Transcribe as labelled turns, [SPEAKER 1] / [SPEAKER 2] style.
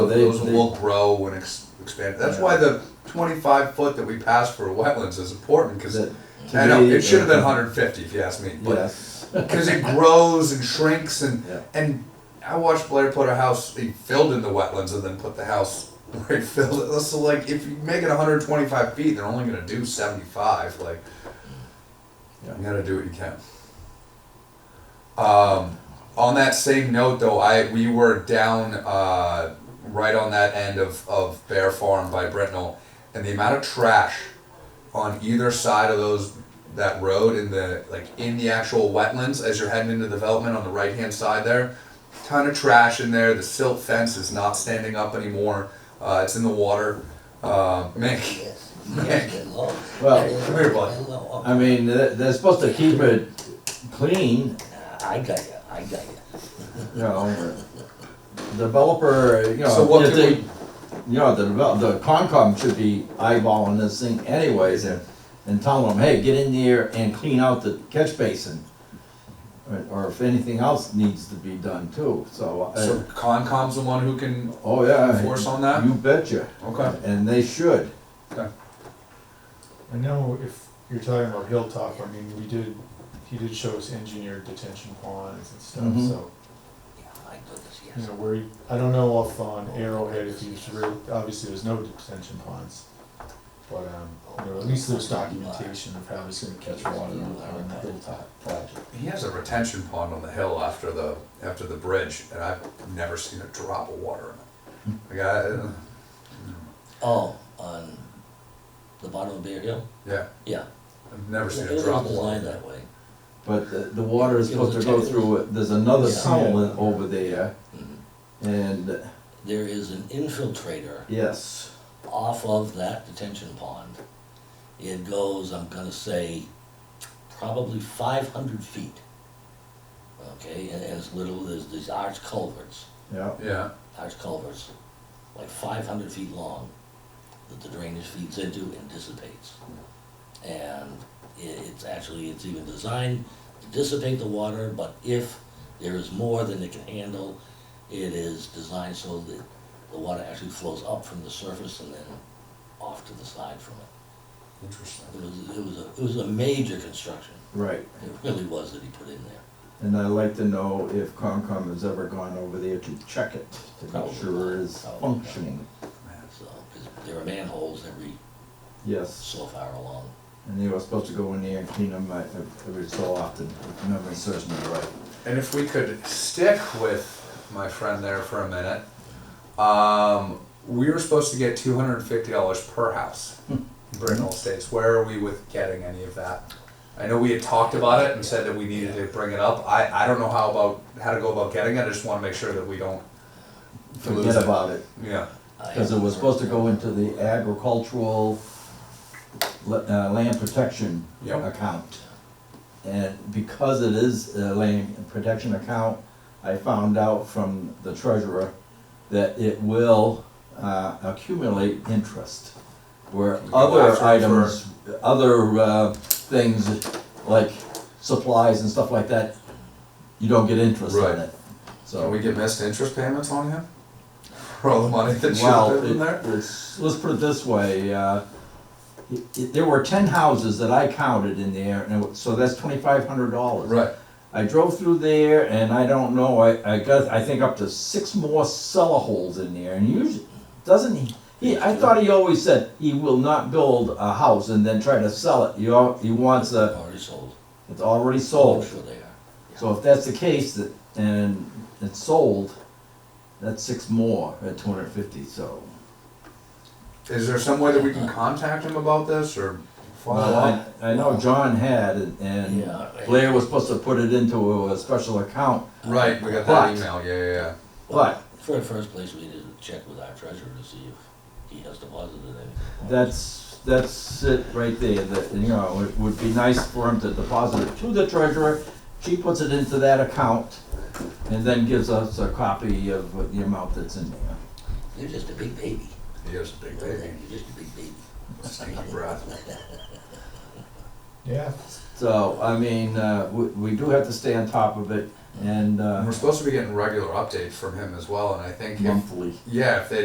[SPEAKER 1] They-
[SPEAKER 2] Those
[SPEAKER 1] they-
[SPEAKER 2] will grow and ex- expand. That's why the 25 foot that we passed for wetlands is important because
[SPEAKER 1] that- to
[SPEAKER 2] I know
[SPEAKER 1] me,
[SPEAKER 2] it should have been
[SPEAKER 1] uh,
[SPEAKER 2] 150 if you ask me, but
[SPEAKER 1] Yes,
[SPEAKER 2] because it grows and shrinks and
[SPEAKER 1] Yeah.
[SPEAKER 2] and I watched Blair put a house. He filled in the wetlands and then put the house where he filled it. So like, if you make it 125 feet, they're only gonna do 75. Like,
[SPEAKER 1] Yeah.
[SPEAKER 2] you gotta do what you can. Um, on that same note, though, I we were down uh, right on that end of of Bear Farm by Brentnell, and the amount of trash on either side of those that road in the like in the actual wetlands as you're heading into development on the right hand side there ton of trash in there the silt fence is not standing up anymore uh, it's in the water uh, Mick
[SPEAKER 3] Yes,
[SPEAKER 2] Man.
[SPEAKER 3] yes, it will.
[SPEAKER 1] Well,
[SPEAKER 3] It
[SPEAKER 2] come here,
[SPEAKER 3] will,
[SPEAKER 2] bud.
[SPEAKER 3] it will.
[SPEAKER 1] I mean, they're, they're supposed to keep it clean,
[SPEAKER 3] I got you, I got you.
[SPEAKER 1] you know. Developer, you know.
[SPEAKER 2] So what
[SPEAKER 1] if
[SPEAKER 2] can
[SPEAKER 1] they- You know, the develop, the Concom should be eyeballing this thing anyways and, and telling them, hey, get in there and clean out the catch basin. Or- Or if anything else needs to be done too, so. uh,
[SPEAKER 2] so Concom's the one who can
[SPEAKER 1] Oh, yeah.
[SPEAKER 2] enforce on that?
[SPEAKER 1] You betcha,
[SPEAKER 2] okay
[SPEAKER 1] and they should.
[SPEAKER 4] I know if you're talking about Hilltop, I mean, we did, he did show us engineered detention ponds and
[SPEAKER 1] Mhm.
[SPEAKER 4] stuff, so,
[SPEAKER 3] Yeah, I do this,
[SPEAKER 4] you
[SPEAKER 3] yes.
[SPEAKER 2] Hmm.
[SPEAKER 4] know, where, you- I don't know if on Arrowhead, if he's, re- obviously there's no detention ponds. But, um, you know, at least there's documentation of how he's gonna catch water on the Hilltop project.
[SPEAKER 2] he has a retention pond on the hill after the after the bridge and I've never seen a drop of water in it like I,
[SPEAKER 3] Oh, on the bottom of Bear Hill?
[SPEAKER 2] yeah
[SPEAKER 3] Yeah.
[SPEAKER 2] I've never seen
[SPEAKER 3] It
[SPEAKER 2] a
[SPEAKER 3] was
[SPEAKER 2] drop of water
[SPEAKER 3] designed
[SPEAKER 2] in it.
[SPEAKER 3] that way.
[SPEAKER 1] But the, the water is
[SPEAKER 3] It was
[SPEAKER 1] supposed to go
[SPEAKER 3] a-
[SPEAKER 1] through, it. there's another
[SPEAKER 3] Yeah.
[SPEAKER 1] tunnel in- over there,
[SPEAKER 3] Mhm.
[SPEAKER 1] and,
[SPEAKER 3] There is an infiltrator
[SPEAKER 1] yes,
[SPEAKER 3] off of that detention pond. It goes, I'm gonna say, probably five hundred feet. Okay, and, and it's little, there's these arch culverts.
[SPEAKER 1] yeah.
[SPEAKER 2] yeah
[SPEAKER 3] large culverts, like five hundred feet long, that the drainage feeds into and dissipates. And i it's actually, it's even designed to dissipate the water, but if there is more than it can handle, it is designed so that the water actually flows up from the surface and then off to the side from it.
[SPEAKER 2] interesting
[SPEAKER 3] It was, it was a, it was a major construction,
[SPEAKER 1] Right,
[SPEAKER 3] it really was that he put in there.
[SPEAKER 1] and I'd like to know if Concom has ever gone over there to check it, to make
[SPEAKER 3] Probably
[SPEAKER 1] sure
[SPEAKER 3] not.
[SPEAKER 1] it's
[SPEAKER 3] Probably not.
[SPEAKER 1] functioning.
[SPEAKER 2] man
[SPEAKER 3] So, 'cause there are manholes every
[SPEAKER 1] Yes,
[SPEAKER 3] so far along.
[SPEAKER 1] and they were supposed to go in there and clean them uh, every so often, if memory serves me right.
[SPEAKER 2] And if we could stick with my friend there for a minute, um, we were supposed to get two hundred and fifty dollars per house. in Brittenell Estates. Where are we with getting any of that? I know we had talked about it and said that we needed to bring it up. I, I don't know how about how to go about getting it. I just want to make sure that we don't lose
[SPEAKER 1] Forget
[SPEAKER 2] it.
[SPEAKER 1] about it,
[SPEAKER 2] Yeah.
[SPEAKER 3] I-
[SPEAKER 1] because it was supposed to go into the agricultural la- uh, land protection
[SPEAKER 2] Yep.
[SPEAKER 1] account. And because it is a land protection account, I found out from the treasurer that it will uh, accumulate interest. Where
[SPEAKER 2] Can we go
[SPEAKER 1] other
[SPEAKER 2] after it for-
[SPEAKER 1] items, other uh, things like supplies and stuff like that, you don't get interest
[SPEAKER 2] Right.
[SPEAKER 1] on it.
[SPEAKER 2] So
[SPEAKER 1] So,
[SPEAKER 2] we get missed interest payments on him for all the money that you
[SPEAKER 1] well,
[SPEAKER 2] put in there.
[SPEAKER 1] it- it's- let's put it this way, uh, it- it- there were ten houses that I counted in there, and it wa- so that's twenty-five hundred dollars.
[SPEAKER 2] Right.
[SPEAKER 1] I drove through there and I don't know, I, I got, I think up to six more cellar holes in there and usually, doesn't he? He, I thought he always said he will not build a house and then try to sell it. He, al- he wants a,
[SPEAKER 3] Already sold.
[SPEAKER 1] it's already
[SPEAKER 3] I'm
[SPEAKER 1] sold.
[SPEAKER 3] Sure they are.
[SPEAKER 1] So if that's the case that, and it's sold, that's six more at two hundred and fifty, so.
[SPEAKER 2] Is there some way that we can contact him about this or follow
[SPEAKER 1] I,
[SPEAKER 2] up?
[SPEAKER 1] I know John had and- and
[SPEAKER 3] Yeah.
[SPEAKER 1] Blair was supposed to put it into a special account,
[SPEAKER 2] Right. We got that
[SPEAKER 1] But-
[SPEAKER 2] email. Yeah, yeah, yeah.
[SPEAKER 1] but
[SPEAKER 3] For the first place, we need to check with our treasurer to see if he has deposited anything.
[SPEAKER 1] That's, that's it right there, that, you know, it would be nice for him to deposit it to the treasurer. She puts it into that account and then gives us a copy of what the amount that's in there.
[SPEAKER 3] You're just a big baby.
[SPEAKER 2] He is a big baby.
[SPEAKER 3] You're just a big baby.
[SPEAKER 2] Stinky breath.
[SPEAKER 4] Yeah,
[SPEAKER 1] So, I mean, uh, we, we do have to stay on top of it. and,
[SPEAKER 2] And
[SPEAKER 1] uh,
[SPEAKER 2] we're supposed to be getting regular updates from him as well, and I think if,
[SPEAKER 1] monthly.
[SPEAKER 2] yeah, if they